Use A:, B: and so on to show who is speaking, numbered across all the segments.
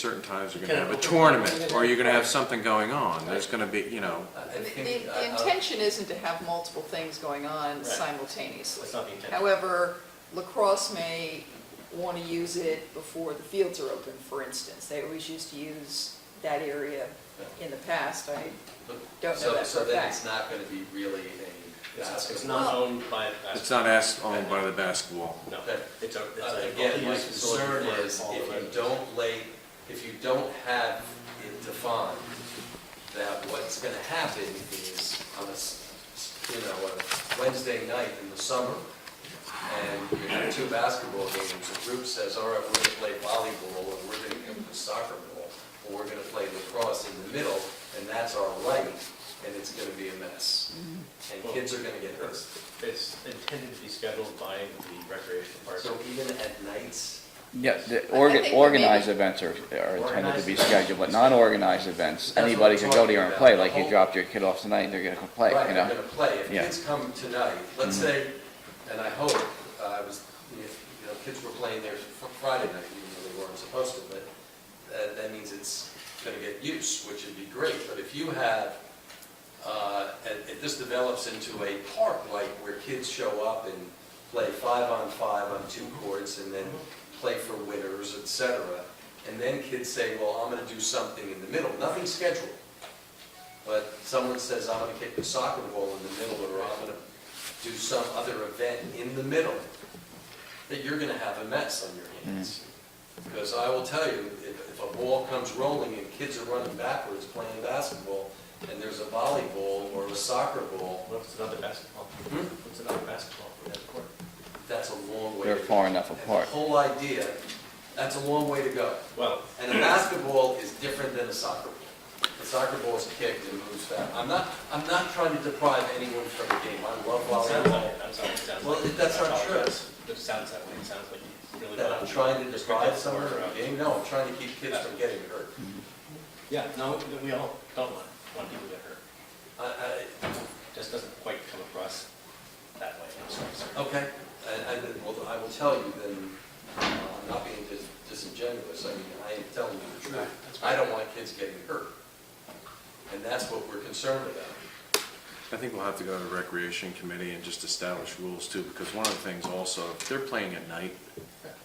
A: certain times you're gonna have a tournament, or you're gonna have something going on, there's gonna be, you know,
B: I- I
C: The,
B: think,
C: the
B: uh, uh,
C: the intention isn't to have multiple things going on
B: Right.
C: simultaneously.
B: That's not the intention.
C: However, lacrosse may want to use it before the fields are open, for instance. They always used to use that area in the past. I, Don't know
D: uh, So-
C: that for
D: So
C: a
D: then
C: fact.
D: it's not going to be really
B: It's it's
D: a.
B: not
C: Well-
B: owned by,
A: it's not as owned by the basketball.
B: no,
D: Okay.
B: it's a, it's
D: Uh,
B: a.
D: Again, my
B: multi-use facility
D: concern
B: for
D: is
B: all
D: if
B: the
D: you
B: residents.
D: don't lay, if you don't have it defined, that what's going to happen is on a, s- s- you know, a Wednesday night in the summer, and you have two basketball games, a group says, all right, we're going to play volleyball, and we're going to go to soccer ball, or we're going to play lacrosse in the middle, and that's our right, and it's going to be a mess. And kids are going to get hurt.
B: It's intended to be scheduled by the recreation
D: So
B: department.
D: even at nights,
E: Yeah,
C: I
E: the
C: think
E: orga-
C: that
E: organized
C: maybe-
E: events are, are intended to
D: Organized
E: be
D: events.
E: scheduled, but non-organized events,
D: That's what
E: anybody
D: I'm
E: could go there and
D: talking
E: play,
D: about. Oh.
E: like you dropped your kid off tonight, they're gonna go play,
D: right,
E: you
D: they're
E: know?
D: gonna play. If
E: Yeah. Mm-hmm.
D: kids come tonight, let's say, and I hope, uh, I was, you know, kids were playing there fr- Friday night, even though they weren't supposed to, but that, that means it's gonna get use, which would be great. But if you have, uh, and if this develops into a park, like where kids show up and play five on five on two courts and then play for winners, et cetera, and then kids say, well, I'm gonna do something in the middle, nothing scheduled. But someone says, I'm gonna kick the soccer ball in the middle, or I'm gonna do some other event in the middle, that you're gonna have a mess on your hands.
E: Mm.
D: Because I will tell you, if, if a ball comes rolling and kids are running backwards playing basketball, and there's a volleyball or a soccer ball,
B: What if it's another basketball?
D: Hmm?
B: What's another basketball for that court?
D: that's a long way.
E: They're
D: to go.
E: far enough
D: And
E: apart.
D: the whole idea, that's a long way to go.
B: Well,
D: And a basketball is different than a soccer ball. A soccer ball is kicked and moves fast. I'm not, I'm not trying to deprive anyone from a game. I love
B: it sounds
D: volleyball.
B: like, I'm sorry, it sounds
D: Well,
B: like.
D: that's
B: I
D: not true.
B: apologize. It sounds that way, it sounds like you really.
D: That
B: want
D: I'm trying to
B: restrict it
D: deprive someone
B: for,
D: from
B: uh,
D: a game? No, I'm trying to keep kids from getting hurt.
B: Yeah, no, we all don't want, want people to get hurt.
D: I, I,
B: Just doesn't quite come across that way, I'm sorry, sir.
D: okay. And, and, well, I will tell you then, uh, I'm not being dis- disingenuous. I mean, I am telling you
B: Right,
D: the truth.
B: that's
D: I
B: right.
D: don't want kids getting hurt. And that's what we're concerned about.
A: I think we'll have to go to the recreation committee and just establish rules too, because one of the things also, if they're playing at night,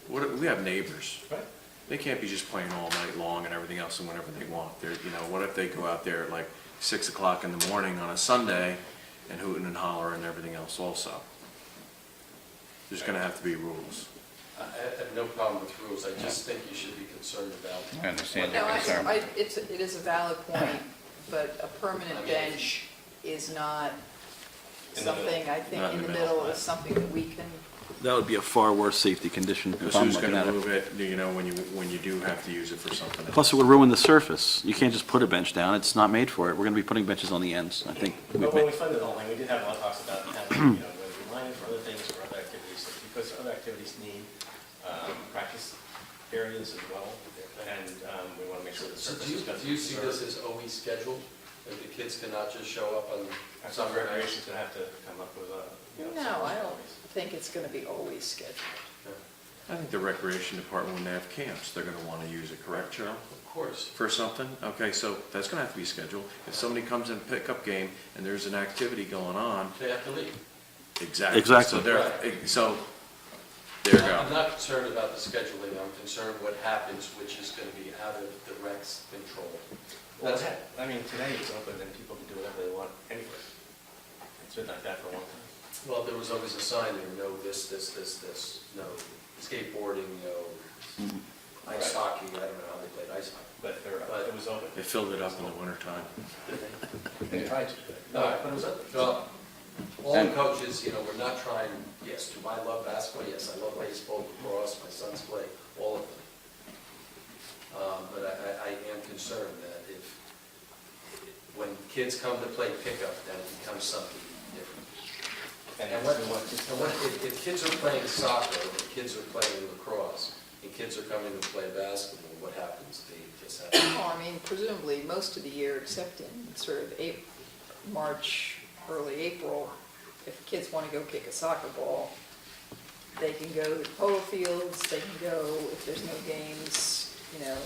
A: what, we have neighbors.
B: Right.
A: They can't be just playing all night long and everything else and whenever they want. They're, you know, what if they go out there at like six o'clock in the morning on a Sunday and hooting and hollering and everything else also? There's gonna have to be rules.
D: I I have no problem with rules, I just think you should be concerned about.
E: I understand
C: no,
E: your
C: I,
E: concern.
C: I- it's, it is a valid point, but a permanent bench is not
B: In the middle.
C: something, I think,
A: Not
C: in the middle is something that we can,
F: That would be a far worse safety condition if
A: Because
F: I'm
A: who's
F: looking
A: gonna
F: at it.
A: move it, you know, when you, when you do have to use it for something else?
F: Plus, it would ruin the surface. You can't just put a bench down. It's not made for it. We're going to be putting benches on the ends, I think. we've
B: But when we
F: made-
B: funded the whole thing, we did have a lot of talks about having, you know, whether we line it for other things or other activities, because other activities need um, practice areas as well, and um, we want to make sure the
D: So
B: surface
D: do you,
B: is going to
D: do you see this as always scheduled? That the kids cannot just show up on
B: Some
D: summer recreation?
B: recreation's going to have to come up with a, you know.
C: no,
B: some
C: I don't
B: ways.
C: think it's going to be always scheduled.
A: I think the recreation department, when they have camps, they're gonna wanna use it, correct, Cheryl?
D: Of course.
A: for something, okay, so that's gonna have to be scheduled. If somebody comes in pickup game and there's an activity going on,
D: They have to leave.
A: exactly.
F: Exactly.
A: So there, so, there you
D: I'm
A: go.
D: not concerned about the scheduling, I'm concerned what happens, which is going to be out of the rec's control.
B: Well,
D: That's it.
B: I mean, today it's open, and people can do whatever they want anywhere. It's been like that for a long time.
D: Well, there was always a sign there, no this, this, this, this, no skateboarding, no ice hockey, I don't know how they played ice hockey.
B: But they're-
D: But-
B: it was open.
A: They filled it up in the wintertime.
B: They tried to do it.
D: No,
B: But it was open.
D: Well, all the
E: And-
D: coaches, you know, we're not trying, yes, do I love basketball? Yes, I love baseball, lacrosse, my sons play, all of them. Um, But I, I- I am concerned that if, when kids come to play pickup, that it becomes something different. And what, and what, if, if kids are playing soccer, if kids are playing lacrosse, and kids are coming to play basketball, what happens? They just have to
C: Well, I mean, presumably, most of the year, except in sort of April, March, early April, if kids want to go kick a soccer ball, they can go to polo fields, they can go, if there's no games, you know,